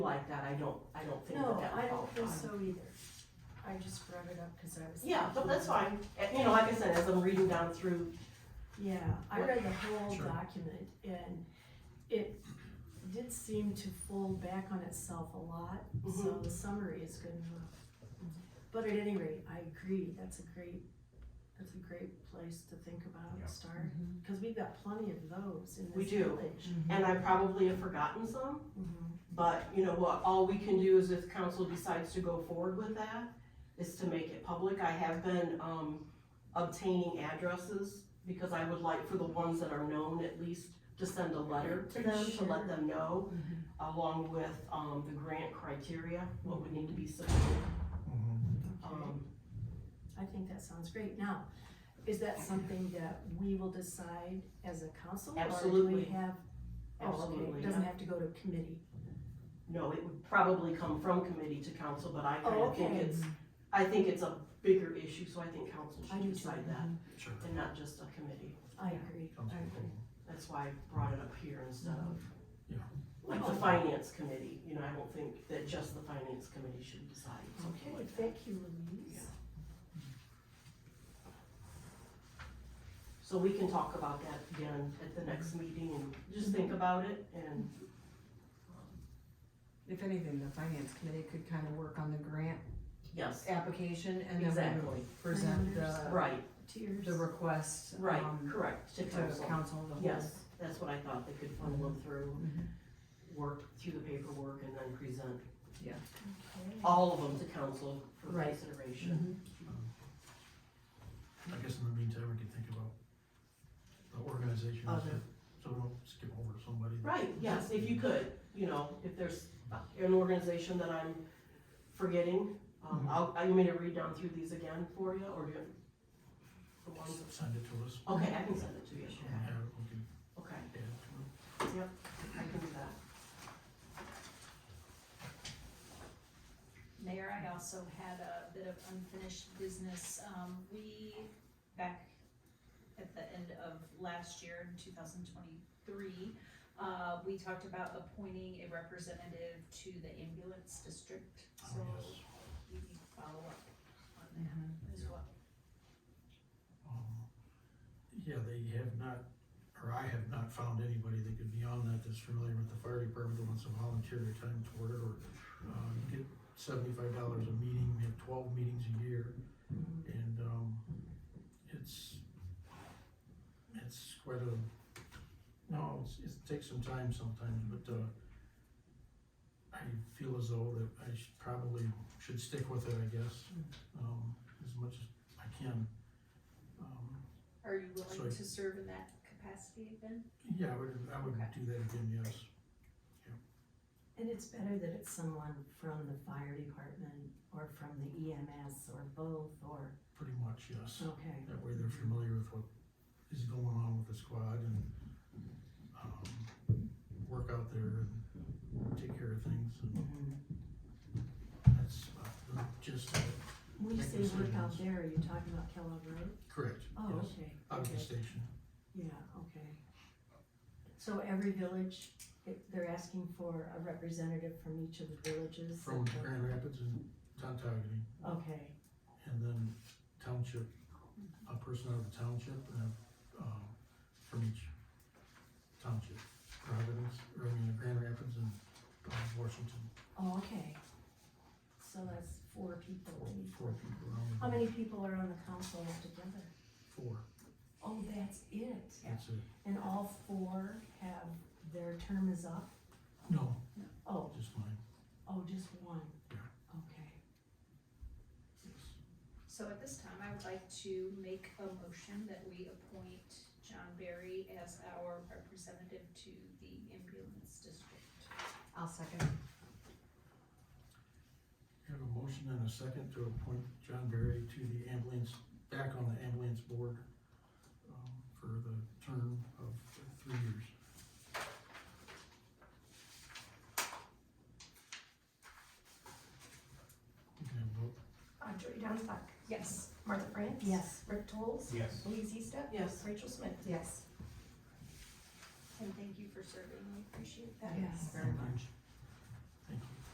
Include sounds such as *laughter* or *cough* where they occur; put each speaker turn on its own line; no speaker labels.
like that, I don't, I don't think that
No,
that would
I
qualify.
don't think so either. I just brought it up because I was.
Yeah, but that's
thinking-
fine, And, you know, like I said, as I'm reading down through,
Yeah, I
*laughs*
read the whole
Sure.
document and it did seem to fold back on itself a lot, so
Mhm.
the summary is good enough.
Mm-hmm.
But at any rate, I agree, that's a great, that's a great place to think about
Yeah.
and start, because we've got plenty of those in
We
this
do.
village.
and I probably have forgotten some,
Mhm.
but you know what, all we can do is if council decides to go forward with that, is to make it public, I have been, um, obtaining addresses, because I would like for the ones that are known at least to send a letter to
To
them, to let
share.
them know,
Mm-hmm.
along with, um, the grant criteria, what would need to be submitted,
Okay.
um,
I think that sounds great. Now, is that something that we will decide as a council? Or
Absolutely.
do we have? Oh, okay,
Absolutely,
it doesn't
yeah.
have to go to committee.
No, it would probably come from committee to council, but I kind
Oh,
of think
okay.
it's, I think it's a bigger issue, so I think council
I
should
do too. Mm-hmm.
decide that,
Sure.
and not just a committee.
I agree.
Sounds good.
That's why I brought it up here instead of,
Yeah.
Mm-hmm.
like,
Oh.
the finance committee, you know, I don't think that just the finance committee should decide something
Okay,
like that.
thank you, Louise.
So we can talk about that again at the
Mm-hmm.
next meeting, and just think about it, and, um,
If anything, the finance committee could kind of work on the grant
yes,
application and then we
Exactly.
would present the,
right,
Tears.
the request.
right,
um,
correct, to
To
council.
council, the whole. Mhm.
Yes, that's what I thought, they could funnel them through, work through the paperwork and then present
Okay.
all of them to council for
Right. Mm-hmm.
consideration.
I guess in the meantime, we can think about the organization, so
Other.
so we don't skip over somebody.
Right, yes, if you could, you know, if there's an organization that I'm forgetting, um,
Mhm.
I'll, I you mean to read down through these again for you, or do you? the ones that-
Send it to us.
Okay, I can send it to you,
So we have, we can
okay,
add it to it.
I can do that.
Mayor, I also had a bit of unfinished business. Um, we, back at the end of last year, in two thousand twenty-three, uh, we talked about appointing a representative to the ambulance district, so
Oh, yes.
we need to follow up on
Mm-hmm.
that as well.
Um, Yeah, they have not, or I have not found anybody that could be on that that's familiar with the fire department that wants to volunteer their time toward it, or, uh, you get seventy-five dollars a meeting, you have twelve meetings a year, and, um, it's, it's quite a, no, it's, it takes some time sometimes, but, uh, I feel as though that I should probably, should stick with it, I guess, um, as much as I can. Um,
Are you
Sorry.
willing to serve in that capacity again?
Yeah, I would, I would
Okay.
do that again, yes.
And it's better that it's someone from the fire department or from the EMS or both or,
Pretty much, yes.
okay.
That way they're familiar with what is going on with the squad and, um, work out there and take care of things. And
mm-hmm.
that's about the gist of it.
When you
Thank
say
you,
work out
Susan.
there, are you talking about Kellogg Road?
Correct,
Oh,
yes.
okay.
Out of the
okay.
station.
Yeah, okay. So every village, it- they're asking for a representative from each of the villages? that
From
the-
Grand Rapids and Tontagony,
Okay,
and then township, a person out of the township and, a, um, from each township. Providence, or I mean, Grand Rapids and uh, Washington.
oh, okay. So that's four people.
Four four people around.
How many people are on the council altogether?
Four,
Oh, that's it.
that's it.
And all four have, their term is up?
No,
Oh,
just mine,
oh, just one?
Yeah.
Okay.
yes.
So at this time, I would like to make a motion that we appoint John Berry as our representative to the ambulance district.
I'll second.
We have a motion and a second to appoint John Berry to the ambulance, back on the ambulance board, um, for the term of three years. You can have a vote.
Uh, Jody Donstock,
Yes.
Martha France.
Yes.
Rick Tolz.
Yes.
Louise Eastuck.
Yes,
Rachel Smith.
Yes.
And thank you for serving, we appreciate that.
Yes.
Very much.